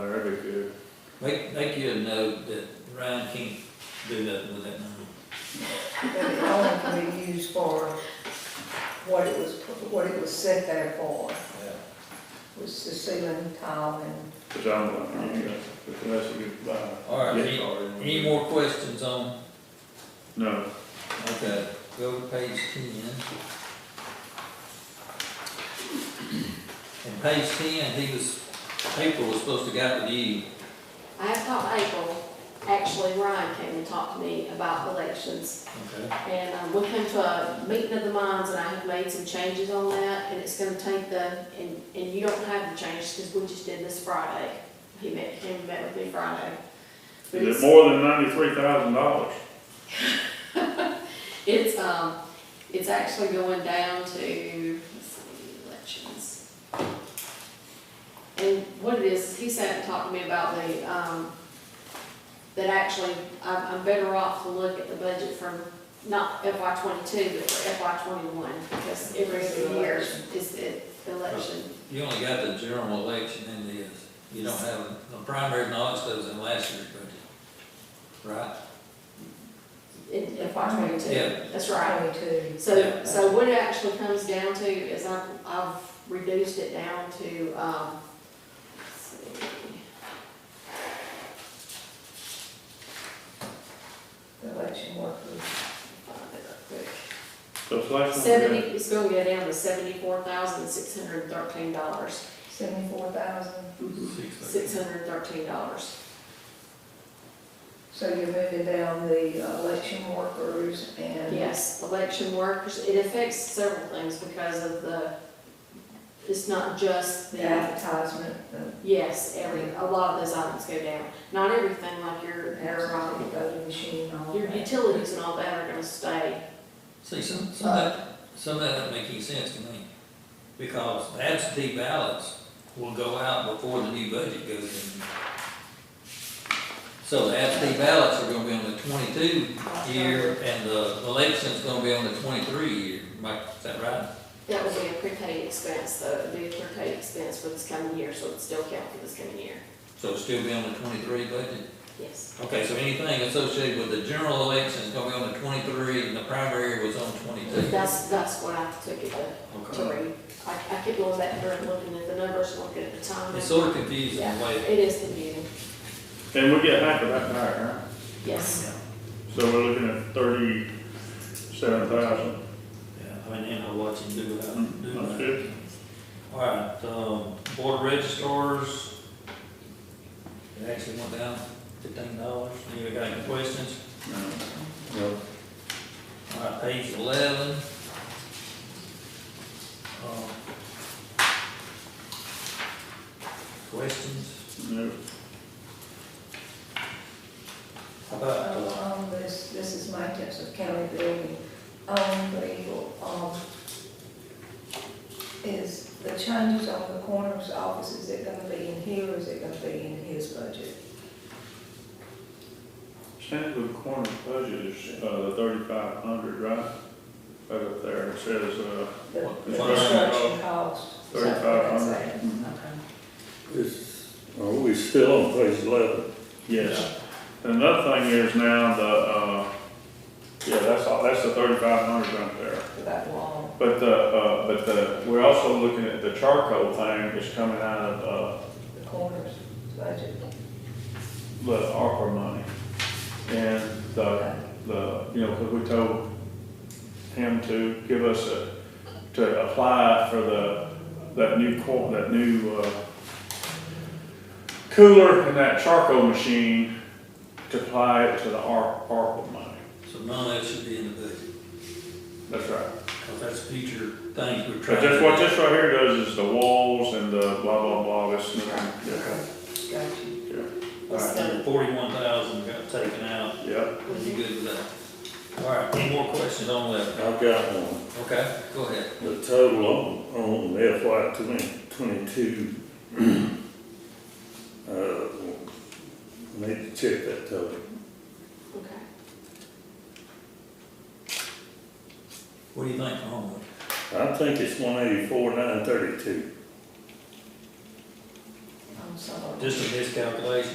uh, Make, make you a note that Ryan can't do nothing with that number. that it only can be used for what it was, what it was set there for, Yeah. was the ceiling tile and Cause I'm, not- I'm, not- unless you buy. a All right, gift any, card. any more questions on, No, okay, go to page ten. And page ten, he was, April was supposed to got with you. I have talked to April, actually Ryan came and talked to me about elections. Okay. And um, we came to a meeting of the minds and I have made some changes on that and it's gonna take the, and, and you don't have the changes because we just did this Friday. He met, came and met with me Friday. But is it's- it more than ninety-three thousand dollars? It's, um, it's actually going down to, let's see, elections. And what it is, he sat and talked to me about the, um, that actually, I'm, I'm better off to look at the budget from not FY twenty-two, but for FY twenty-one, because every year is the election. You only got the general election and the, you don't have, the primary and all that stuff was in last year's budget. Right? in FY twenty-two. Yeah. That's right. twenty-two. So, so what it actually comes down to is I've, I've reduced it down to, um, let's see. The election workers, find it real quick. So it's like. Seventy, it's gonna go down to seventy-four thousand, six hundred and thirteen dollars. seventy-four thousand, Mm-hmm. Six hundred and thirteen dollars. so you're moving down the uh, election workers and. Yes, election workers, it affects several things because of the, it's not just The the, advertisement, the. yes, every, a lot of those items go down. Not everything like your, your, the um, voting machine, all your that. utilities and all that are gonna stay. See, some, some of that, some of that doesn't make any sense to me, because the absentee ballots will go out before the new budget goes in. So the absentee ballots are gonna be on the twenty-two year, and the election's gonna be on the twenty-three year, Mike, is that right? That would be a prepaid expense, though, it'd be a prepaid expense for this coming year, so it'd still count for this coming year, So it'll still be on the twenty-three budget? yes. Okay, so anything associated with the general election is gonna be on the twenty-three, and the primary was on twenty-two. That's, that's what I took it to, to Okay. read. I, I kept going back there and looking at the numbers, looking at the time. It's sort of confusing the way. It is confusing, And we get half of that back, huh? yes. So we're looking at thirty-seven thousand. Yeah, I mean, and I watch him do what I do. That's good. All right, um, board registrars, it actually went down fifteen dollars. Anybody got any questions? No. All right, page eleven. Um, Questions? No. How about, uh, Um, this, this is my tips of county building, um, the, um, is the changes on the coroner's office, is it gonna be in here, or is it gonna be in his budget? Sandwood Corner budget is, uh, thirty-five hundred, right? Right up there, it says, uh, The What, the the construction cost. is that what thirty-five I'm hundred. saying? Is, are we still on page eleven? Yes. Another thing is now the, uh, yeah, that's, all. that's the thirty-five hundred right there. For that wall, But the, uh, but the, we're also looking at the charcoal thing is coming out of, the coroner's budget. uh, the ARPA money. And the, the, you know, 'cause we told him to give us a, to apply for the, that new cor, that new, uh, cooler and that charcoal machine to apply it to the ARP, ARPA money. so none of that should be in the budget, That's right. because that's future things we're trying But to. that's what do. this right here does is the walls and the blah, blah, blah, this, yeah, Got you. yeah. All right, Let's so go. forty-one thousand got taken out. Yep. Would you good with that? All right, any more questions on that? I've got one. Okay, go ahead. The total on, on FY twenty, twenty-two. Uh, we need to check that total. Okay. What do you think, Homewood? I think it's one eighty-four, nine thirty-two. I'm sorry. um, Just a miscalculation.